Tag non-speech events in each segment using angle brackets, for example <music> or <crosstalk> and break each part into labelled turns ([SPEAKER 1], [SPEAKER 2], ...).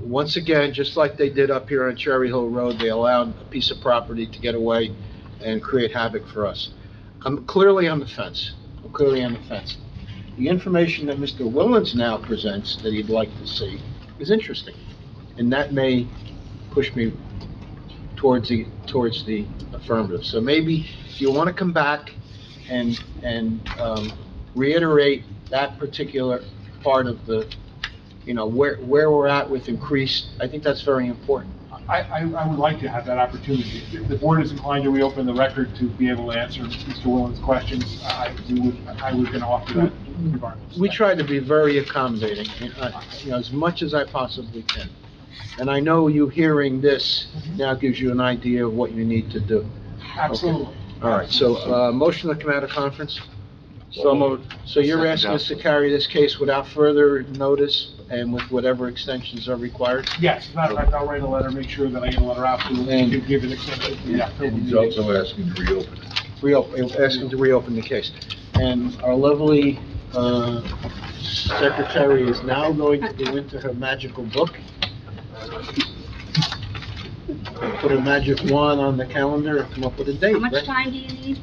[SPEAKER 1] Once again, just like they did up here on Cherry Hill Road, they allowed a piece of property to get away and create havoc for us. I'm clearly on the fence. I'm clearly on the fence. The information that Mr. Willens now presents that he'd like to see is interesting, and that may push me towards the, towards the affirmative. So maybe if you want to come back and, and um, reiterate that particular part of the, you know, where, where we're at with increased, I think that's very important.
[SPEAKER 2] I, I, I would like to have that opportunity. If the board is inclined to reopen the record to be able to answer Mr. Willens' questions, I, we would, I was gonna offer that regardless.
[SPEAKER 1] We try to be very accommodating, uh, you know, as much as I possibly can. And I know you hearing this now gives you an idea of what you need to do.
[SPEAKER 2] Absolutely.
[SPEAKER 1] All right, so, uh, motion to come out of conference?
[SPEAKER 3] So moved.
[SPEAKER 1] So you're asking us to carry this case without further notice and with whatever extensions are required?
[SPEAKER 2] Yes, as a matter of fact, I'll write a letter, make sure that I get a letter out to him,
[SPEAKER 1] And-
[SPEAKER 2] give- give it accepted. Yeah.
[SPEAKER 3] And
[SPEAKER 2] <laughs>
[SPEAKER 3] he's also asking to reopen it.
[SPEAKER 1] Reopen, asking to reopen the case. And our lovely, uh, secretary is now going to go into her magical book. Put a magic wand on the calendar and come up with a date,
[SPEAKER 4] How much
[SPEAKER 1] right?
[SPEAKER 4] time do you need?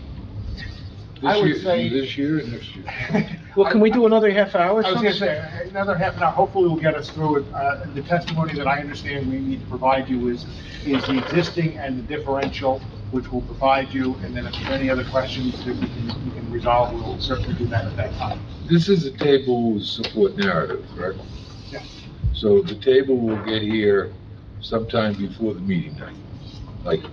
[SPEAKER 2] I
[SPEAKER 3] This
[SPEAKER 2] would
[SPEAKER 3] year-
[SPEAKER 2] say-
[SPEAKER 3] This year and next year.
[SPEAKER 1] Well, can we do another half hour or
[SPEAKER 2] I was
[SPEAKER 1] something?
[SPEAKER 2] gonna say, uh, another half an hour, hopefully will get us through it. Uh, the testimony that I understand we need to provide you is, is the existing and the differential, which we'll provide you, and then if there are any other questions that we can, we can resolve, we'll certainly do that at that time.
[SPEAKER 3] This is a table with support narrative, correct?
[SPEAKER 2] Yeah.
[SPEAKER 3] So the table will get here sometime before the meeting night, like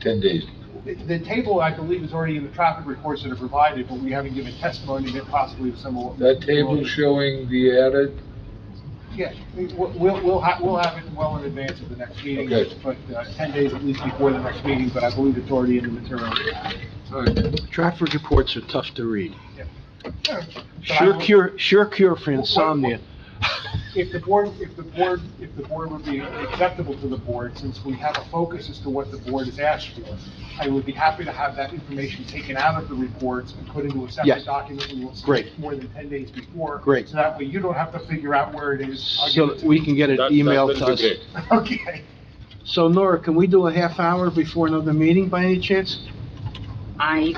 [SPEAKER 3] ten days.
[SPEAKER 2] The- The table, I believe, is already in the traffic reports that are provided, but we haven't given testimony that possibly to some of.
[SPEAKER 3] That table showing the added,
[SPEAKER 2] Yeah, we- we'll, we'll have, we'll have it well in advance of the next meeting,
[SPEAKER 3] Okay.
[SPEAKER 2] but uh, ten days at least before the next meeting, but I believe it's already in the material.
[SPEAKER 1] Traffic reports are tough to read.
[SPEAKER 2] But I
[SPEAKER 1] Sure
[SPEAKER 2] will-
[SPEAKER 1] cure, sure cure for insomnia.
[SPEAKER 2] If the board, if the board, if the board would be acceptable to the board, since we have a focus as to what the board has asked for, I would be happy to have that information taken out of the reports and put into a
[SPEAKER 1] Yes.
[SPEAKER 2] separate document we will submit
[SPEAKER 1] Great.
[SPEAKER 2] more than ten days before.
[SPEAKER 1] Great.
[SPEAKER 2] So that way you don't have to figure out where it is. I'll
[SPEAKER 1] So
[SPEAKER 2] give it
[SPEAKER 1] that
[SPEAKER 2] to
[SPEAKER 1] we can get it
[SPEAKER 3] That- that's
[SPEAKER 1] emailed
[SPEAKER 3] been
[SPEAKER 1] to
[SPEAKER 3] the
[SPEAKER 1] us.
[SPEAKER 3] case.
[SPEAKER 2] you. <laughs> Okay.
[SPEAKER 1] So Nora, can we do a half hour before another meeting by any chance?
[SPEAKER 4] I.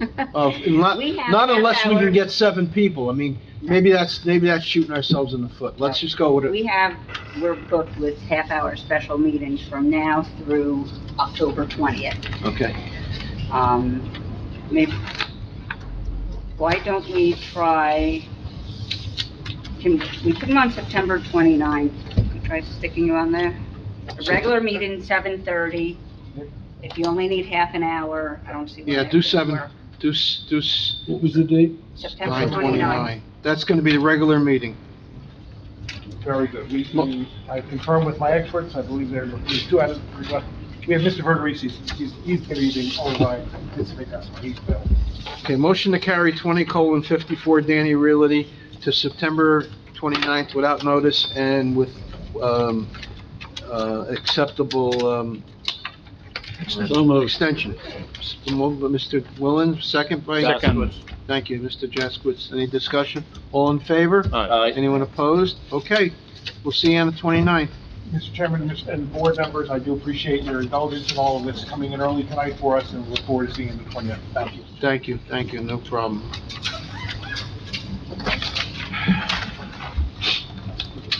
[SPEAKER 4] <laughs>
[SPEAKER 1] Of, not,
[SPEAKER 4] We have
[SPEAKER 1] Uh, not
[SPEAKER 4] half
[SPEAKER 1] unless we
[SPEAKER 4] hour.
[SPEAKER 1] can get seven people. I mean, maybe that's, maybe that's shooting ourselves in the foot. Let's just go with
[SPEAKER 4] We
[SPEAKER 1] it.
[SPEAKER 4] have, we're booked with half-hour special meetings from now through October 20th.
[SPEAKER 1] Okay.
[SPEAKER 4] Um, maybe, why don't we try, can, we put them on September 29th? Can we Try sticking you on there? A regular meeting, 7:30. If you only need half an hour, I don't see why.
[SPEAKER 1] Yeah,
[SPEAKER 4] that
[SPEAKER 1] do
[SPEAKER 4] wouldn't
[SPEAKER 1] seven,
[SPEAKER 4] work.
[SPEAKER 1] do, s- do s-
[SPEAKER 3] What was the date?
[SPEAKER 4] September
[SPEAKER 1] nine
[SPEAKER 4] 29th.
[SPEAKER 1] twenty-nine. That's gonna be the regular meeting.
[SPEAKER 2] Very good. We, we- I confirmed with my experts, I believe there there's two out of, three left. we have Mr. Verderisi, he's, he's gonna be the only one to participate, that's why he's available.
[SPEAKER 1] Okay, motion to carry twenty colon fifty-four Danny Realty to September 29th without notice and with, um, uh, acceptable, um, extension. Moved by Mr. Willen, second by? Thank you, Mr. Jaskowitz. Any discussion? All in favor? Anyone opposed? Okay, we'll see you on the 29th.
[SPEAKER 2] Mr. Chairman Mr. and board members, I do appreciate your indulgence in all of this coming in early tonight for us, and look forward to seeing you in the 20th. Thank you.
[SPEAKER 1] Thank you, thank you, no problem.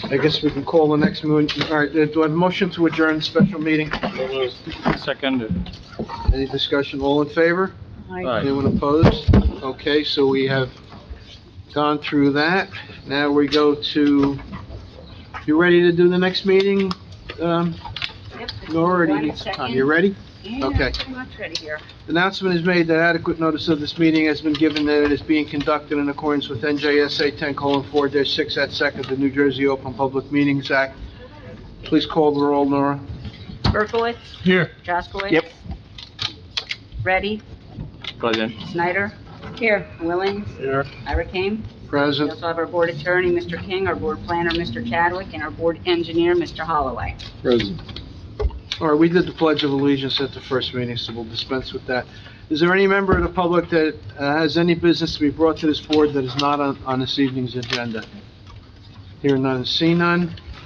[SPEAKER 1] I guess we can call the next moon, all right, uh, do I have a motion to adjourn the special meeting?
[SPEAKER 5] Second.
[SPEAKER 1] Any discussion? All in favor? Anyone opposed? Okay, so we have gone through that. Now we go to, you ready to do the next meeting? Um,
[SPEAKER 4] Yep, just
[SPEAKER 1] Nora, or do you
[SPEAKER 4] one
[SPEAKER 1] need some time?
[SPEAKER 4] second.
[SPEAKER 1] You ready?
[SPEAKER 4] Yeah,
[SPEAKER 1] Okay.
[SPEAKER 4] pretty much ready here.
[SPEAKER 1] Announcement is made that adequate notice of this meeting has been given that it is being conducted in accordance with NJSA 10:4-6 at second, the New Jersey Open Public Meetings Act. Please call the roll, Nora.
[SPEAKER 4] Berkowitz?
[SPEAKER 5] Here.
[SPEAKER 4] Jaskowitz?
[SPEAKER 5] Yep.
[SPEAKER 4] Ready?
[SPEAKER 5] Present.
[SPEAKER 4] Snyder? Here. Willens?
[SPEAKER 1] Here.
[SPEAKER 4] Ira Kane? We
[SPEAKER 1] Present.
[SPEAKER 4] also have our board attorney, Mr. King, our board planner, Mr. Chadwick, and our board engineer, Mr. Holloway.
[SPEAKER 3] Present.
[SPEAKER 1] All right, we did the Pledge of Allegiance at the first meeting, so we'll dispense with that. Is there any member of the public that uh, has any business to be brought to this board that is not on on this evening's agenda? Hear none, see none.